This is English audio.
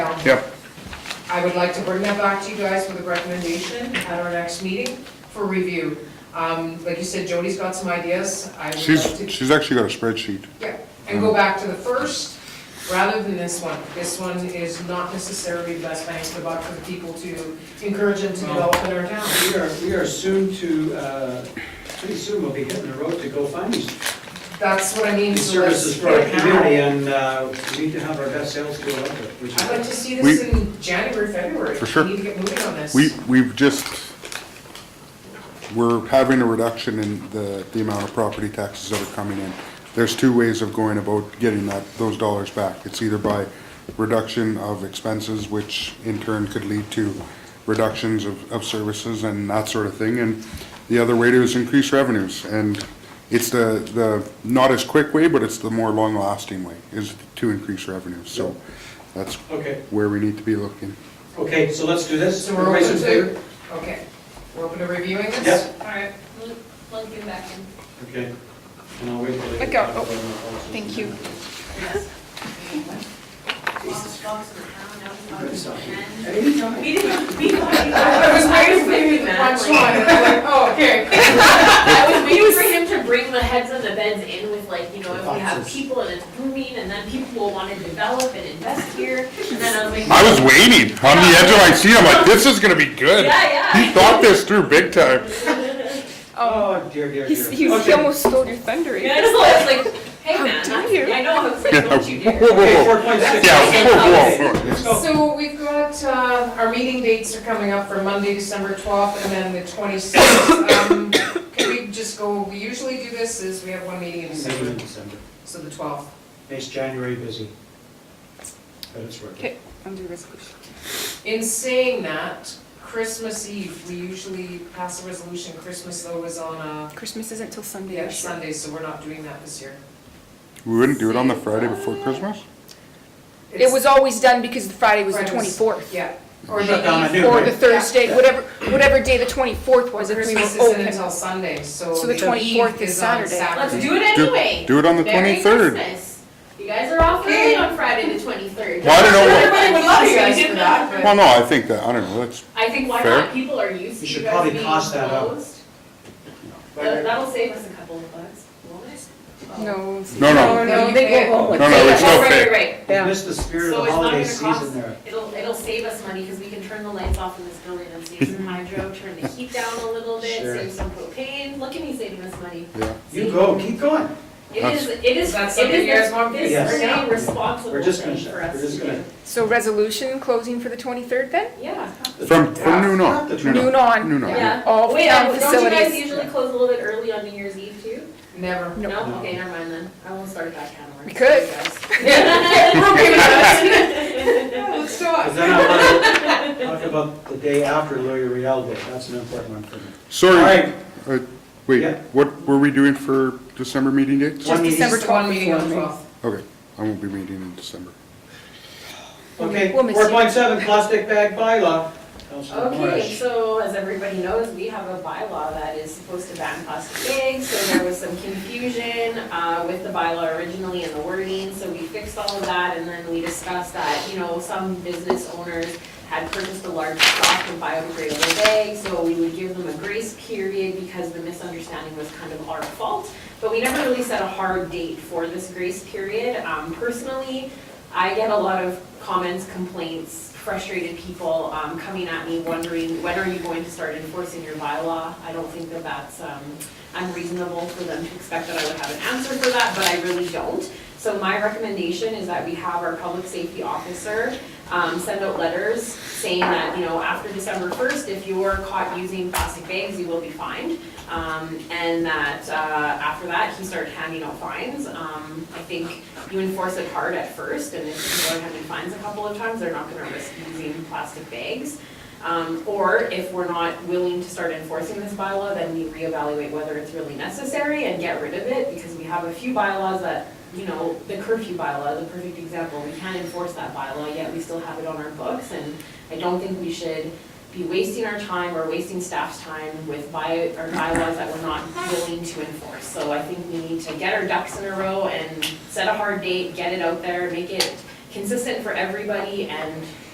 Yeah, I would like to bring that back to you guys with a recommendation at our next meeting for review. Um, Like you said, Jody's got some ideas. I would she's, like to, she's actually got a spreadsheet. yeah, and go back to the first rather than this one. This one is not necessarily the best bang for the buck for the people to encourage them to develop in our town. We are, we are soon to, uh, pretty soon we'll be hitting the road to go find these That's what I mean. these so let's services for our get it now. community, and uh, we need to have our best sales go out there. which is- I'd like to see this in January, February. For sure. We need to get moving on this. We, we've just, we're having a reduction in the, the amount of property taxes that are coming in. There's two ways of going about getting that, those dollars back. It's either by reduction of expenses, which in turn could lead to reductions of, of services and that sort of thing. And the other way to is increase revenues. And it's the, the, not as quick way, but it's the more long-lasting way, is to increase revenues. So that's Okay, where we need to be looking. okay, so let's do this. So we're open Everybody's in favor? to, okay, we're open to reviewing this? Yep. All right. We'll- We'll get back in. Okay. And I'll wait for the. Let go. Oh, thank you. Anytime. I was waiting for you to punch one, and I'm like, oh, okay. I was waiting for him to bring the heads of the beds in with like, you know, if we have people and it's booming and then people will want to develop and invest here. And then I was like. I was waiting on the edge of my seat. I'm like, this is gonna be good. Yeah, He yeah. thought this through big time. Oh, Oh, dear, dear, he's, dear. he's, he Okay. almost stole your thunder. Yeah, I know, I was like, hey How man, dare that's- you. I know, I was like, Yeah, don't you whoa, dare. whoa, Okay, whoa, four point six. Yeah, whoa, whoa, whoa. Let's go. So we've got, uh, our meeting dates are coming up for Monday, December twelfth, and then the twenty-sixth. Um, can we just go, we usually do this, is we have one meeting in Maybe in December, December. so the twelfth. Makes January busy. But it's worth Okay, it. under resolution. In saying that, Christmas Eve, we usually pass a resolution, Christmas though is on a, Christmas isn't till Sunday. yeah, this year. Sunday, so we're not doing that this year. We wouldn't do it on the Friday before Christmas? It was always done because the Friday was the Friday was- twenty-fourth. Yeah, or Shut down at the eve. noon, Or right? the Thursday, whatever, whatever day the twenty-fourth was, if we Christmas were isn't open. until Sunday, so. So the 24th is on Saturday. Let's do it Do- anyway. Do it on the Merry twenty-third. Christmas. You guys are off Okay. early on Friday, the twenty-third. Well, I don't know what- Everybody would love you guys for that, but- Well, no, I think that, I don't know, that's, I think why Fair. not, people are used to You you should guys probably being cost that out. closed. That- Right, That'll save us a couple of bucks, won't it? No. No, no. No, they go home. no, no, it's Oh, no right, right, fair. right. right. Missed the spirit So of the it's not holiday gonna cost, season there. it'll, it'll save us money because we can turn the lights off in this building and save some hydro, turn the heat down a little bit, Sure. save some propane. Look at me saving us money. Yeah. You go, keep going. It is, it is, That's it something you guys is want me to this do? really We're responsible just gonna, thing for we're us just to gonna. do. So resolution closing for the twenty-third then? Yeah, From, from noon on. Noon Noon on. on. yeah. All Wait, town I- don't you guys facilities. usually close a little bit early on New Year's Eve too? Never. No. No? No. Okay, never mind then. I won't start that kind of work. We could. We're okay with that. Yeah, Let's do But it. then I want to talk about the day after Louis Real Day, that's an important one for me. All Sorry, right, uh, wait, Yeah. what were we doing for December meeting dates? Just One meeting. December Just one twelfth meeting on before the me. twelfth. Okay, I won't be meeting in December. okay, We'll miss you. four point seven, plastic bag bylaw. Councilor Okay, Morris. so as everybody knows, we have a bylaw that is supposed to ban plastic bags, so there was some confusion uh, with the bylaw originally and the wording, so we fixed all of that, and then we discussed that, you know, some business owners had purchased a large stock of biodegradable bags, so we would give them a grace period because the misunderstanding was kind of our fault. But we never really set a hard date for this grace period. Um, Personally, I get a lot of comments, complaints, frustrated people um, coming at me wondering, when are you going to start enforcing your bylaw? I don't think that that's um, unreasonable for them to expect that I would have an answer for that, but I really don't. So my recommendation is that we have our public safety officer um, send out letters saying that, you know, after December 1st, if you're caught using plastic bags, you will be fined. Um, And that uh, after that, he started handing out fines. Um, I think you enforce it hard at first, and if people are having fines a couple of times, they're not gonna risk using plastic bags. Um, Or if we're not willing to start enforcing this bylaw, then we reevaluate whether it's really necessary and get rid of it, because we have a few bylaws that, you know, the curfew bylaw is a perfect example. We can't enforce that bylaw, yet we still have it on our books, and I don't think we should be wasting our time or wasting staff's time with by, or bylaws that we're not willing to enforce. So I think we need to get our ducks in a row and set a hard date, get it out there, make it consistent for everybody and